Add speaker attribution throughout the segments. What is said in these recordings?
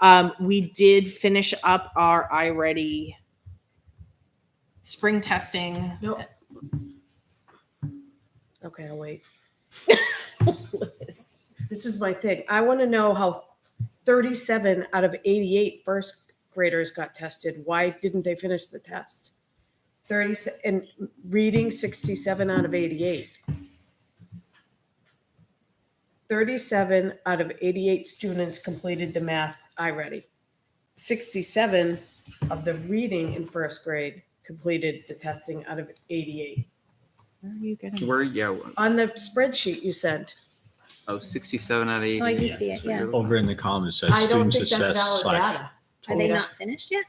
Speaker 1: Um, we did finish up our iReady spring testing.
Speaker 2: No. Uh, Okay, I'll wait. This is my thing. I want to know how 37 out of 88 first graders got tested. Why didn't they finish the test? 30 se- and reading 67 out of 88. 37 out of 88 students completed the math I ready. 67 of the reading in first grade completed the testing out of 88.
Speaker 1: Where are you getting?
Speaker 3: Where,
Speaker 4: Mm-hmm.
Speaker 3: yeah,
Speaker 2: On the spreadsheet you sent,
Speaker 3: oh, 67 out of 80.
Speaker 4: I do see it, yeah.
Speaker 5: Over in the comments, says
Speaker 2: I don't
Speaker 5: student
Speaker 2: think that's
Speaker 5: success
Speaker 2: valid
Speaker 5: slash.
Speaker 2: data.
Speaker 4: Are they
Speaker 2: Yeah.
Speaker 4: not finished yet?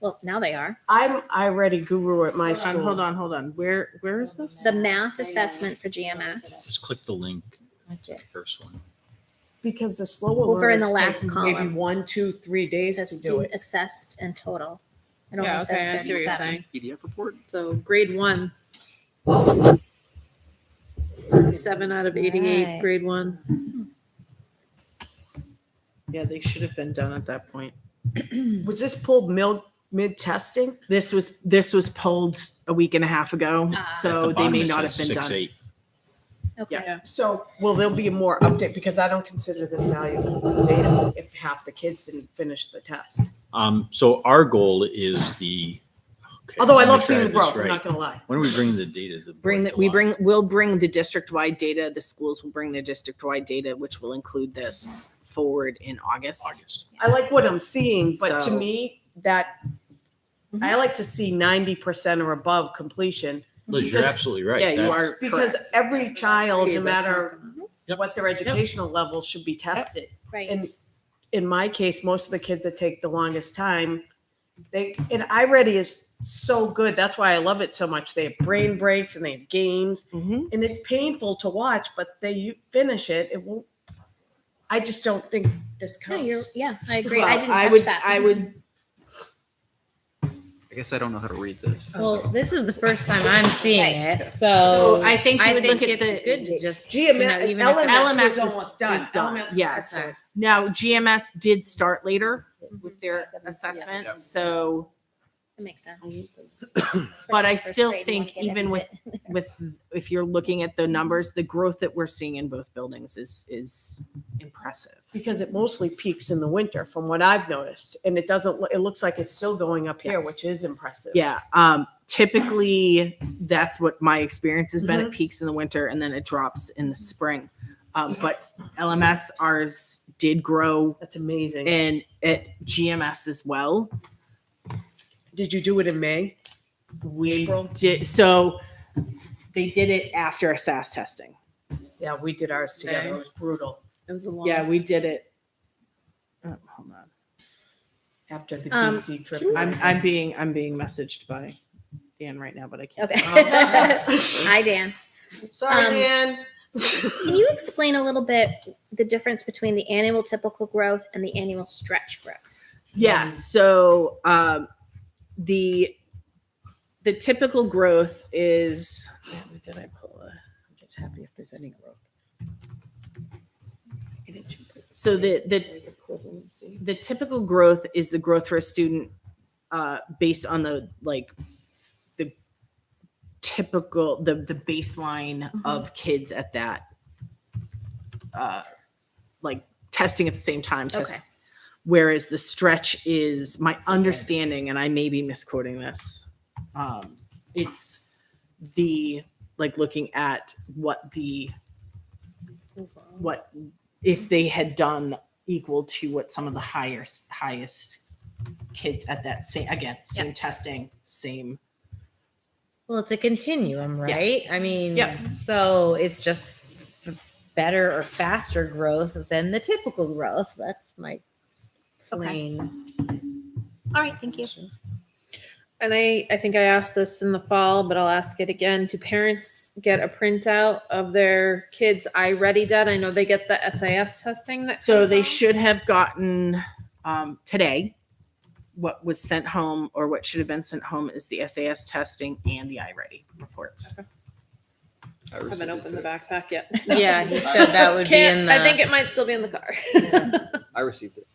Speaker 4: Well, now they are.
Speaker 2: I'm I ready guru at my
Speaker 1: Hold on,
Speaker 2: school.
Speaker 1: hold on, hold on. Where where is this?
Speaker 4: The math assessment for GMS.
Speaker 5: Just click the link.
Speaker 4: That's it.
Speaker 5: First one.
Speaker 2: Because the slower
Speaker 4: Over in the
Speaker 2: learners
Speaker 4: last
Speaker 2: take Maybe
Speaker 4: column.
Speaker 2: one, two, three
Speaker 4: It
Speaker 2: days
Speaker 4: says
Speaker 2: to do
Speaker 4: student
Speaker 2: it.
Speaker 4: assessed and total. It only
Speaker 6: Yeah,
Speaker 4: says
Speaker 6: okay, I see what you're
Speaker 4: 37.
Speaker 6: saying.
Speaker 3: PDF report?
Speaker 6: So grade one. Seven out of
Speaker 4: Right.
Speaker 6: eighty-eight, grade one.
Speaker 1: Yeah, they should have been done at that point.
Speaker 2: Was this pulled mid mid testing?
Speaker 1: This was this was polled a week and a half ago,
Speaker 4: Ah.
Speaker 5: At
Speaker 1: so
Speaker 5: the
Speaker 1: they
Speaker 5: bottom,
Speaker 1: may
Speaker 5: it
Speaker 1: not have
Speaker 5: says
Speaker 1: been
Speaker 5: six,
Speaker 1: done.
Speaker 5: eight.
Speaker 4: Okay.
Speaker 2: So will there be more update because I don't consider this valuable data if half the kids didn't finish the test.
Speaker 5: Um, so our goal is the. okay,
Speaker 2: Although I
Speaker 5: let me
Speaker 2: love
Speaker 5: try
Speaker 2: seeing the
Speaker 5: this
Speaker 2: growth, I'm
Speaker 5: right.
Speaker 2: not gonna lie.
Speaker 5: When are we bringing the data? to the
Speaker 1: Bring
Speaker 5: board?
Speaker 1: that we
Speaker 5: July?
Speaker 1: bring we'll bring the district wide data. The schools will bring their district wide data, which will include this forward in August.
Speaker 5: August.
Speaker 2: I like what I'm seeing, but to
Speaker 1: So-
Speaker 2: me, that I like to see ninety percent or above completion
Speaker 5: Liz, you're
Speaker 2: Because-
Speaker 5: absolutely right.
Speaker 1: Yeah, you
Speaker 5: That's-
Speaker 1: are
Speaker 2: because
Speaker 1: correct.
Speaker 2: every child,
Speaker 6: Okay,
Speaker 2: no
Speaker 6: that's
Speaker 2: matter
Speaker 6: not gonna-
Speaker 5: Yep.
Speaker 2: what their educational level should be tested.
Speaker 4: Right.
Speaker 2: And in my case, most of the kids that take the longest time, they and iReady is so good. That's why I love it so much. They have brain breaks and they have games,
Speaker 1: Mhm.
Speaker 2: and it's painful to watch, but they you finish it. It won't. I just don't think this
Speaker 4: No,
Speaker 2: counts.
Speaker 4: you're, yeah, I agree.
Speaker 1: Well,
Speaker 4: I didn't
Speaker 1: I
Speaker 4: catch
Speaker 1: would
Speaker 4: that.
Speaker 1: I would
Speaker 3: I guess I don't know how to read this.
Speaker 7: Well,
Speaker 3: so.
Speaker 7: this is the first time I'm seeing
Speaker 4: Right.
Speaker 7: it, so
Speaker 1: I think you
Speaker 7: I
Speaker 1: would
Speaker 7: think
Speaker 1: look at
Speaker 7: it's
Speaker 1: the-
Speaker 7: good to just
Speaker 2: GMS,
Speaker 7: you know, even if it's-
Speaker 2: LMS,
Speaker 1: LMS
Speaker 2: was
Speaker 1: is-
Speaker 2: almost done.
Speaker 1: is done.
Speaker 2: LMS was
Speaker 1: Yeah,
Speaker 2: almost done.
Speaker 1: now GMS did start later with their assessment,
Speaker 3: Yeah.
Speaker 1: so
Speaker 4: That makes sense.
Speaker 1: But I still
Speaker 4: Especially first grade, you wanna
Speaker 1: think
Speaker 4: get in
Speaker 1: even
Speaker 4: it.
Speaker 1: with if you're looking at the numbers, the growth that we're seeing in both buildings is is impressive.
Speaker 2: because it mostly peaks in the winter from what I've noticed. And it doesn't, lo- it looks like it's still going up here, which is impressive.
Speaker 1: Yeah. Um typically that's what my experience has been. It peaks in the winter and then it drops in the spring. Um, but LMS ours did grow
Speaker 2: That's amazing.
Speaker 1: and at GMS as well.
Speaker 2: Did you do it in May?
Speaker 1: We
Speaker 2: April?
Speaker 1: did so they did it after a SAS testing.
Speaker 2: Yeah, we did ours together. It was brutal
Speaker 6: It was a long.
Speaker 1: Yeah, we did it. Oh, hold on.
Speaker 2: after the
Speaker 4: Um,
Speaker 2: DC trip.
Speaker 1: I'm I'm being I'm being messaged by Dan right now, but I can't.
Speaker 4: Okay.
Speaker 2: Oh.
Speaker 4: Hi, Dan.
Speaker 2: Sorry,
Speaker 4: um,
Speaker 2: man.
Speaker 4: Can you explain a little bit the difference between the annual typical growth and the annual stretch growth?
Speaker 1: Yeah. So um, the the typical growth is. Did I pull? A, I'm just happy if there's any growth. So the the the typical growth is the growth for a student uh, based on the like the typical the the baseline of kids at that uh, like testing at the same time. test-
Speaker 4: Okay.
Speaker 1: Whereas the stretch is my understanding, and I may be misquoting this. Um, it's the like looking at what the what if they had done equal to what some of the highest highest kids at that same again same testing same
Speaker 7: well, it's a continuum, right? I mean,
Speaker 1: Yep.
Speaker 7: so it's just f- better or faster growth than the typical growth. That's my
Speaker 4: Okay.
Speaker 7: plain.
Speaker 4: All right, thank you.
Speaker 6: And I, I think I asked this in the fall, but I'll ask it again. Do parents get a printout of their kids' iReady data? I know they get the SIS testing that.
Speaker 1: so
Speaker 6: comes
Speaker 1: they
Speaker 6: home.
Speaker 1: should have gotten um, today what was sent home or what should have been sent home is the SAS testing and the iReady reports.
Speaker 3: I
Speaker 6: I
Speaker 3: received
Speaker 6: Haven't
Speaker 3: it
Speaker 6: opened
Speaker 3: today.
Speaker 6: the back pack yet.
Speaker 7: Yeah, he said that would be
Speaker 6: Can't-
Speaker 7: in the.
Speaker 6: I think it might still be in the car.
Speaker 3: I received it.